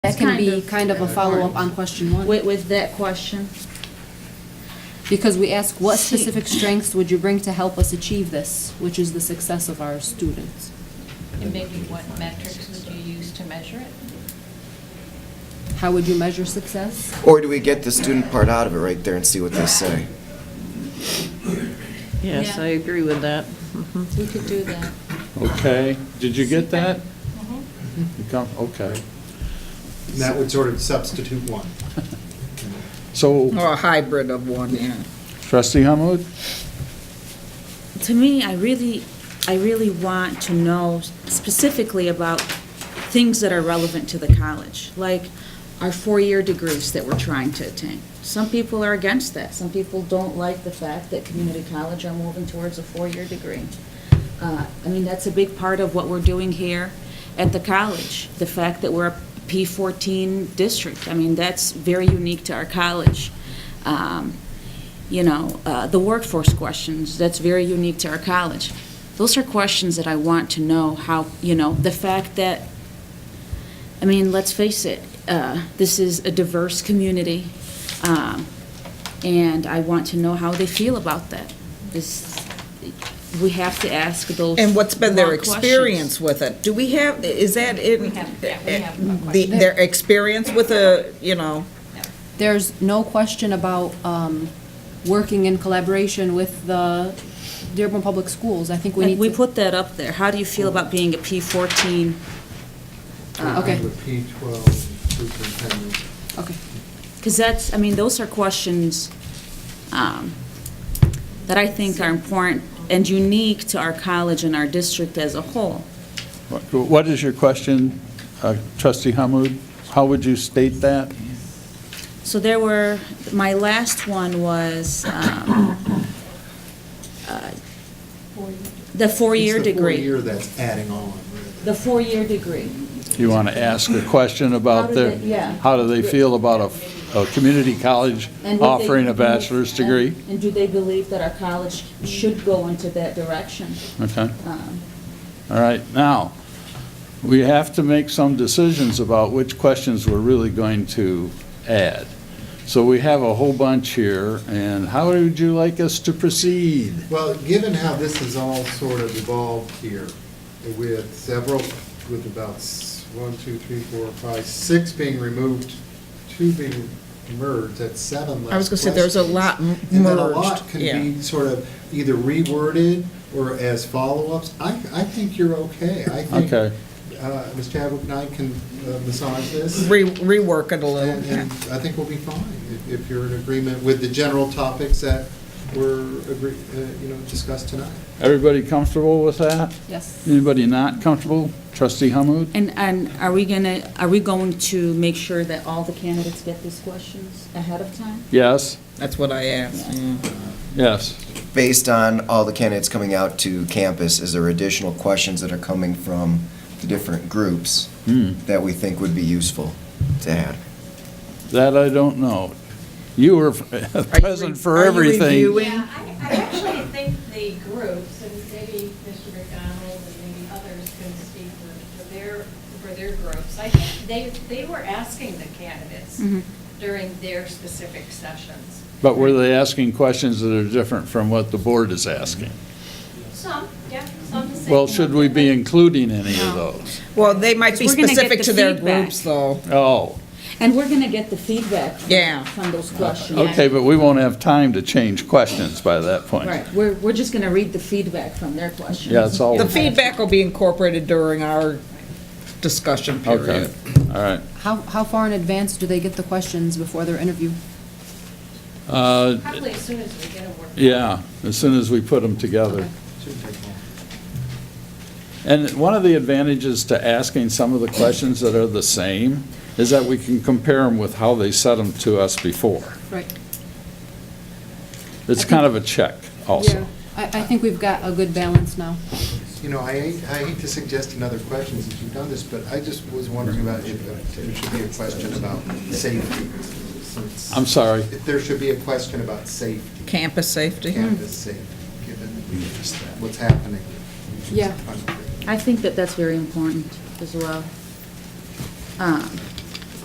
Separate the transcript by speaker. Speaker 1: That
Speaker 2: That's
Speaker 1: can
Speaker 2: kind
Speaker 1: be
Speaker 2: of-
Speaker 1: kind of a follow-up on question
Speaker 2: With,
Speaker 1: one.
Speaker 2: with that question.
Speaker 1: Because we ask, what
Speaker 2: See.
Speaker 1: specific strengths would you bring to help us achieve this, which is the success of our students?
Speaker 3: And maybe what metrics would you use to measure it?
Speaker 1: How would you measure success?
Speaker 4: Or do we get the student part out of it right there and see what they say?
Speaker 2: Yeah.
Speaker 5: Yes, I agree with that. Mhm.
Speaker 1: Mm-hmm.
Speaker 2: We could do that.
Speaker 6: Okay, did you get that?
Speaker 3: Mm-hmm.
Speaker 2: Mhm.
Speaker 6: You come, okay.
Speaker 7: And That would sort of substitute one.
Speaker 6: So
Speaker 8: Or a hybrid of one, yeah.
Speaker 6: trustee Hamud,
Speaker 9: to me, I really, I really want to know specifically about things that are relevant to the college, like our four-year degrees that we're trying to attain. Some people are against that. Some people don't like the fact that community college are moving towards a four-year degree. Uh, I mean, that's a big part of what we're doing here at the college, the fact that we're a P-14 district. I mean, that's very unique to our college. Um, you know, uh, the workforce questions, that's very unique to our college. Those are questions that I want to know how, you know, the fact that, I mean, let's face it, uh, this is a diverse community, um, and I want to know how they feel about that. This, we have to ask those.
Speaker 8: And what's been their
Speaker 9: long questions.
Speaker 8: experience with it? Do we have, is that in?
Speaker 3: We have- yeah, we have a
Speaker 8: the-
Speaker 3: question.
Speaker 8: Their experience with a, you know,
Speaker 1: There's no question about um, working in collaboration with the Dearborn Public Schools. I think we need
Speaker 9: Like,
Speaker 1: to.
Speaker 9: we put that up there. How do you feel about being a P-14?
Speaker 1: Ah, okay.
Speaker 7: With P-12 superintendent.
Speaker 1: Okay.
Speaker 9: Because that's, I mean, those are questions um, that I think are important and unique to our college and our district as a whole.
Speaker 6: what- what is your question, uh, trustee Hamud? How would you state that?
Speaker 9: So there were, my last one was um, uh, the four-year
Speaker 7: It's the
Speaker 9: degree.
Speaker 7: four-year that's adding on, really.
Speaker 9: The four-year degree.
Speaker 6: You want to ask a question about
Speaker 9: do
Speaker 6: their,
Speaker 9: they- yeah.
Speaker 6: how do they feel about a, a community college
Speaker 9: And what they-
Speaker 6: offering a bachelor's degree?
Speaker 9: And do they believe that our college should go into that direction?
Speaker 6: Okay.
Speaker 9: Um,
Speaker 6: All right, now, we have to make some decisions about which questions we're really going to add. So we have a whole bunch here, and how would you like us to proceed?
Speaker 7: Well, given how this has all sort of evolved here, with several, with about s- one, two, three, four, five, six being removed, two being merged, that's seven left.
Speaker 8: I was gonna say, there's a lot m-
Speaker 7: questions. And then a lot
Speaker 8: merged,
Speaker 7: can
Speaker 8: yeah.
Speaker 7: be sort of either reworded or as follow-ups. I, I think you're okay. I think,
Speaker 6: Okay.
Speaker 7: uh, Ms. Chadwick and I can uh, massage this.
Speaker 8: re- rework it a
Speaker 7: And
Speaker 8: little.
Speaker 7: and I think we'll be fine if- if you're in agreement with the general topics that were, agree- uh, you know, discussed tonight.
Speaker 6: Everybody comfortable with that?
Speaker 1: Yes.
Speaker 6: Anybody not comfortable? Trustee Hamud?
Speaker 9: And, and are we gonna, are we going to make sure that all the candidates get these questions ahead of time?
Speaker 6: Yes,
Speaker 8: That's what I asked, yeah.
Speaker 6: yes.
Speaker 4: Based on all the candidates coming out to campus, is there additional questions that are coming from the different groups
Speaker 6: Hmm,
Speaker 4: that we think would be useful to add?
Speaker 6: that I don't know. You were present for
Speaker 8: are you
Speaker 6: everything.
Speaker 8: reviewing?
Speaker 3: Yeah, I, I actually think the groups, and maybe Mr. McDonald and maybe others can speak for- for their, for their groups. I think they, they were asking the candidates
Speaker 9: Mhm.
Speaker 3: during their specific sessions.
Speaker 6: But were they asking questions that are different from what the board is asking?
Speaker 3: Some, yeah, some the same.
Speaker 6: Well, should we be including any of
Speaker 9: No.
Speaker 6: those?
Speaker 8: Well, they might be
Speaker 9: We're gonna get
Speaker 8: specific
Speaker 9: the
Speaker 8: to their
Speaker 9: feedback.
Speaker 8: groups, though.
Speaker 6: Oh,
Speaker 9: And we're gonna get the feedback from-
Speaker 8: Yeah.
Speaker 9: from those questions.
Speaker 6: okay, but we won't have time to change questions by that point.
Speaker 9: Right, we're, we're just gonna read the feedback from their questions.
Speaker 6: Yeah, it's all,
Speaker 8: The
Speaker 6: okay,
Speaker 8: feedback will be incorporated during our discussion
Speaker 6: all
Speaker 8: period.
Speaker 6: right.
Speaker 1: How, how far in advance do they get the questions before their interview?
Speaker 6: Uh,
Speaker 3: Probably as soon as we get a work.
Speaker 6: Yeah, as soon as we put them together. And one of the advantages to asking some of the questions that are the same is that we can compare them with how they said them to us before.
Speaker 1: Right.
Speaker 6: It's kind of a check also.
Speaker 1: I, I think we've got a good balance now.
Speaker 7: You know, I hate, I hate to suggest another question since you've done this, but I just was wondering about if there should be a question about safety. since-
Speaker 6: I'm sorry.
Speaker 7: If there should be a question about safety,
Speaker 8: Campus safety.
Speaker 7: campus safety, given what's happening.
Speaker 1: Yeah.
Speaker 9: I think that that's very important as well. Um,